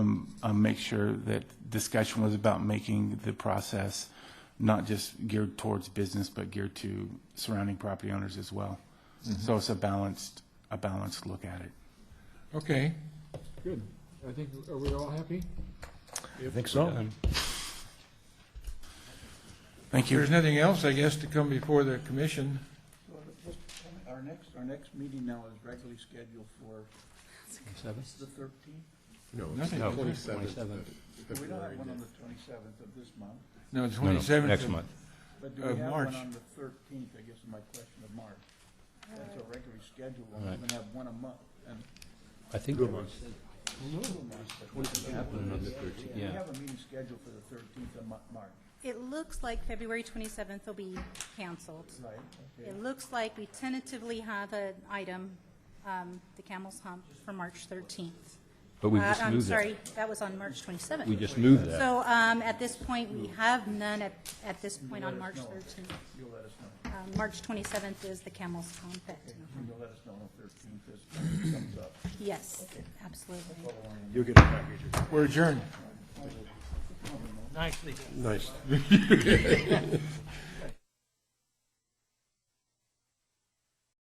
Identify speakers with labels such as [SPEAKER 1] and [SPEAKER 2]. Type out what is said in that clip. [SPEAKER 1] um, uh, make sure that discussion was about making the process not just geared towards business, but geared to surrounding property owners as well. So it's a balanced, a balanced look at it.
[SPEAKER 2] Okay.
[SPEAKER 3] Good. I think, are we all happy?
[SPEAKER 2] I think so.
[SPEAKER 1] Thank you.
[SPEAKER 2] There's nothing else, I guess, to come before the commission.
[SPEAKER 4] Our next, our next meeting now is regularly scheduled for. The thirteenth?
[SPEAKER 2] Nothing.
[SPEAKER 4] We don't have one on the twenty-seventh of this month,
[SPEAKER 2] No,
[SPEAKER 5] No, no,
[SPEAKER 2] twenty-seventh.
[SPEAKER 5] Next month.
[SPEAKER 4] but do
[SPEAKER 2] Of
[SPEAKER 4] we have
[SPEAKER 2] March.
[SPEAKER 4] one on the thirteenth, I guess is my question, of March? That's a regularly scheduled one,
[SPEAKER 5] Right.
[SPEAKER 4] we're gonna have one a month, and
[SPEAKER 5] I think,
[SPEAKER 4] two a month. but we have- We
[SPEAKER 5] yeah.
[SPEAKER 4] have a meeting scheduled for the thirteenth of Mar- March,
[SPEAKER 6] It looks like February 27th will be canceled.
[SPEAKER 4] right? Okay.
[SPEAKER 6] It looks like we tentatively have an item, um, the Camel's Hump, for March 13th.
[SPEAKER 5] But we
[SPEAKER 6] Uh,
[SPEAKER 5] just
[SPEAKER 6] I'm
[SPEAKER 5] moved that.
[SPEAKER 6] sorry, that was on March 27th.
[SPEAKER 5] We just moved that.
[SPEAKER 6] So um, at this point, we have none at, at this point on March 13th.
[SPEAKER 4] You'll let us know,
[SPEAKER 6] Um, March 27th is the Camel's Hump. at-
[SPEAKER 4] you'll let us know on the thirteenth, this comes up.
[SPEAKER 6] Yes, absolutely.
[SPEAKER 2] We're adjourned.
[SPEAKER 7] Nicely.
[SPEAKER 8] Nice.